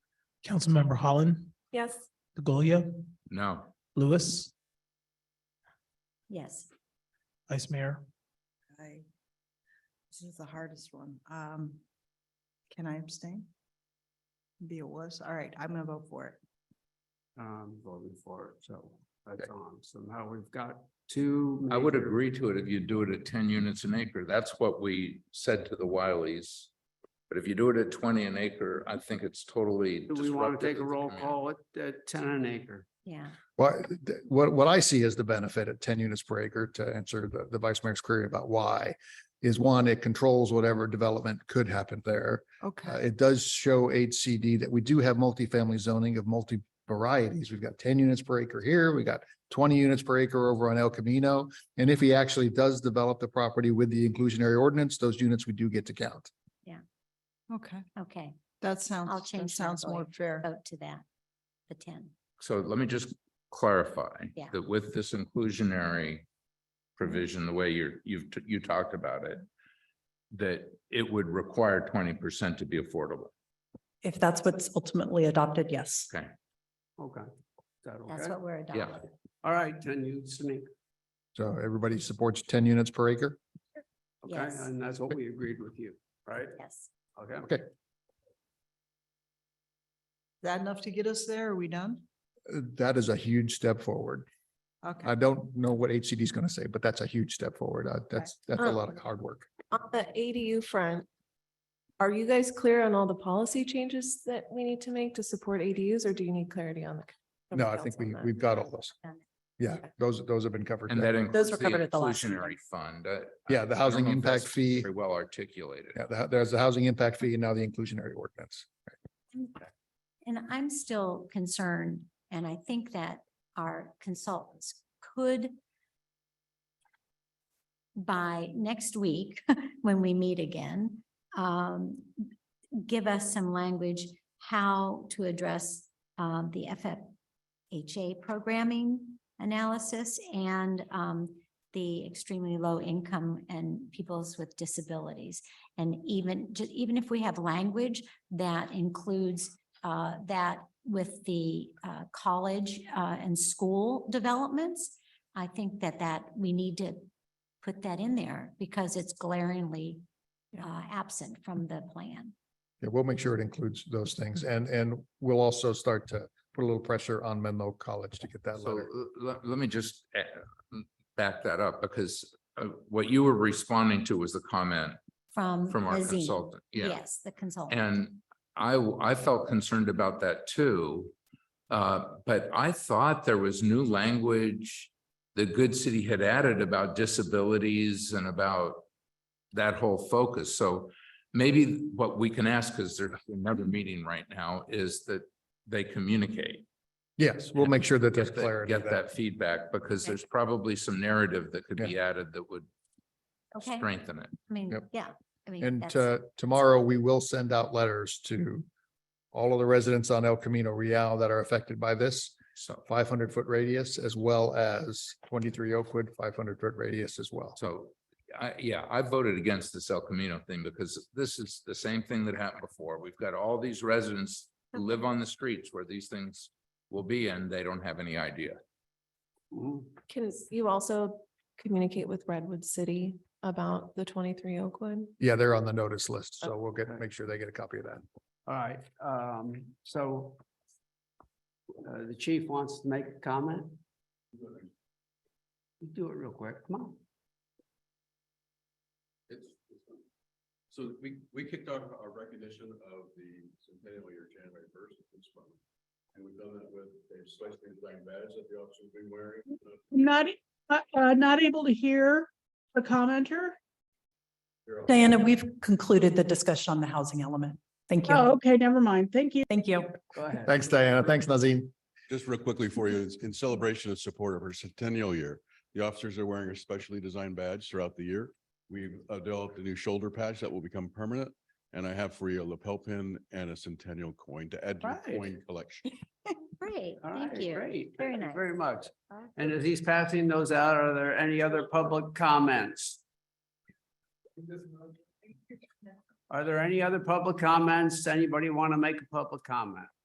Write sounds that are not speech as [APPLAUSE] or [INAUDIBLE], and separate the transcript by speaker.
Speaker 1: Councilmember Holland,
Speaker 2: Yes.
Speaker 1: DeGolia,
Speaker 3: No.
Speaker 1: Lewis,
Speaker 2: Yes.
Speaker 1: Vice Mayor.
Speaker 4: I, this is the hardest one. Um, can I abstain? Be a wuss. All right, I'm gonna vote for it.
Speaker 5: um, voting for it, so that's on. So now we've got two.
Speaker 3: I would
Speaker 5: major-
Speaker 3: agree to it if you do it at ten units an acre. That's what we said to the Wileys. But if you do it at twenty an acre, I think it's totally.
Speaker 5: Do we want to
Speaker 3: disruptive
Speaker 5: take a
Speaker 3: the
Speaker 5: roll
Speaker 3: community.
Speaker 5: call at, at ten an acre?
Speaker 2: Yeah.
Speaker 6: Well, th- what, what I see as the benefit at ten units per acre to answer the, the vice mayor's query about why is one, it controls whatever development could happen there. Uh,
Speaker 4: Okay,
Speaker 6: it does show HCD that we do have multifamily zoning of multi varieties. We've got ten units per acre here. We got twenty units per acre over on El Camino. And if he actually does develop the property with the inclusionary ordinance, those units we do get to count.
Speaker 4: okay.
Speaker 2: Okay,
Speaker 4: That sounds, that
Speaker 2: change my
Speaker 4: sounds more
Speaker 2: vote.
Speaker 4: fair.
Speaker 2: vote to that, the ten.
Speaker 3: So let me just clarify
Speaker 2: Yeah.
Speaker 3: that with this inclusionary provision, the way you're, you've, you talked about it, that it would require twenty percent to be affordable.
Speaker 7: If that's what's ultimately adopted, yes.
Speaker 3: Okay,
Speaker 5: Okay. Is that
Speaker 2: That's
Speaker 5: okay?
Speaker 2: what we're
Speaker 3: yeah.
Speaker 2: adopting.
Speaker 5: All right, ten units an acre.
Speaker 6: So everybody supports ten units per acre?
Speaker 5: Okay,
Speaker 2: Yes.
Speaker 5: and that's what we agreed with you, right?
Speaker 2: Yes.
Speaker 5: Okay.
Speaker 6: Okay.
Speaker 4: Is that enough to get us there? Are we done?
Speaker 6: Uh, That is a huge step forward. I
Speaker 4: Okay,
Speaker 6: don't know what HCD is going to say, but that's a huge step forward. Uh, That's, that's a lot of hard work.
Speaker 8: On the ADU front, are you guys clear on all the policy changes that we need to make to support ADUs, or do you need clarity on the? from the
Speaker 6: No, I think
Speaker 8: council on
Speaker 6: we,
Speaker 8: that?
Speaker 6: we've got all those.
Speaker 2: Uh,
Speaker 6: Yeah, those, those have been covered.
Speaker 3: And that
Speaker 6: Yeah,
Speaker 3: includes
Speaker 7: were
Speaker 3: the
Speaker 7: covered at the last
Speaker 3: inclusionary
Speaker 7: meeting.
Speaker 3: fund. I-
Speaker 6: Yeah, the
Speaker 3: I don't
Speaker 6: housing
Speaker 3: know if
Speaker 6: impact
Speaker 3: that's
Speaker 6: fee.
Speaker 3: Very well articulated.
Speaker 6: the- there's the housing impact fee and now the inclusionary ordinance.
Speaker 2: And I'm still concerned, and I think that our consultants could by next week, [LAUGHS] when we meet again, um, give us some language how to address um, the FFHA programming analysis and um, the extremely low income and peoples with disabilities. And even, ju- even if we have language that includes uh, that with the uh, college uh, and school developments, I think that that, we need to put that in there because it's glaringly
Speaker 7: Yeah.
Speaker 2: uh, absent from the plan.
Speaker 6: Yeah, we'll make sure it includes those things and, and we'll also start to put a little pressure on Menlo College to get that
Speaker 3: So
Speaker 6: letter.
Speaker 3: let, let me just eh, m- back that up because uh, what you were responding to was the comment
Speaker 2: From.
Speaker 3: from our
Speaker 2: Lazine.
Speaker 3: consultant. Yeah.
Speaker 2: Yes, the consultant.
Speaker 3: And I, w- I felt concerned about that too. Uh, but I thought there was new language the good city had added about disabilities and about that whole focus. So maybe what we can ask, because there's another meeting right now, is that they communicate.
Speaker 6: Yes, we'll make sure that there's
Speaker 3: Get that,
Speaker 6: clarity.
Speaker 3: get
Speaker 6: that-
Speaker 3: that feedback because there's probably some narrative that could be added that would
Speaker 2: Okay, I
Speaker 3: strengthen it.
Speaker 2: mean,
Speaker 6: Yep.
Speaker 2: yeah. I mean,
Speaker 6: And
Speaker 2: that's-
Speaker 6: uh, tomorrow, we will send out letters to all of the residents on El Camino Real that are affected by this.
Speaker 3: So,
Speaker 6: five hundred foot radius as well as twenty-three Oakwood, five hundred foot radius as well.
Speaker 3: so I, yeah, I voted against this El Camino thing because this is the same thing that happened before. We've got all these residents who live on the streets where these things will be and they don't have any idea.
Speaker 5: Mhm.
Speaker 8: Can you also communicate with Redwood City about the twenty-three Oakwood?
Speaker 6: Yeah, they're on the notice list, so we'll get,
Speaker 5: Okay.
Speaker 6: make sure they get a copy of that.
Speaker 5: All right, um, so uh, the chief wants to make a comment? Do it real quick, come on.
Speaker 9: It's, it's fun. so we, we kicked off our recognition of the centennial year January first, this month. And we've done that with a slightly designed badge that the officers have been wearing. Uh,
Speaker 10: Not, uh, uh, not able to hear the commenter?
Speaker 9: they're all-
Speaker 7: Diana, we've concluded the discussion on the housing element. Thank
Speaker 10: Oh,
Speaker 7: you.
Speaker 10: okay, never mind. Thank you.
Speaker 7: Thank you.
Speaker 5: Go ahead.
Speaker 6: Thanks, Diana. Thanks, Nazim.
Speaker 9: Just real quickly for you, it's in celebration and support of our centennial year, the officers are wearing a specially designed badge throughout the year. We've uh, developed a new shoulder patch that will become permanent, and I have for you a lapel pin and a centennial coin to add to
Speaker 5: Right.
Speaker 9: your coin collection.
Speaker 2: Great,
Speaker 5: All
Speaker 2: thank
Speaker 5: right,
Speaker 2: you.
Speaker 5: Great.
Speaker 2: Very
Speaker 5: Thank you
Speaker 2: nice.
Speaker 5: Very much. And as he's passing those out, are there any other public comments? Are there any other public comments? Anybody want to make a public comment?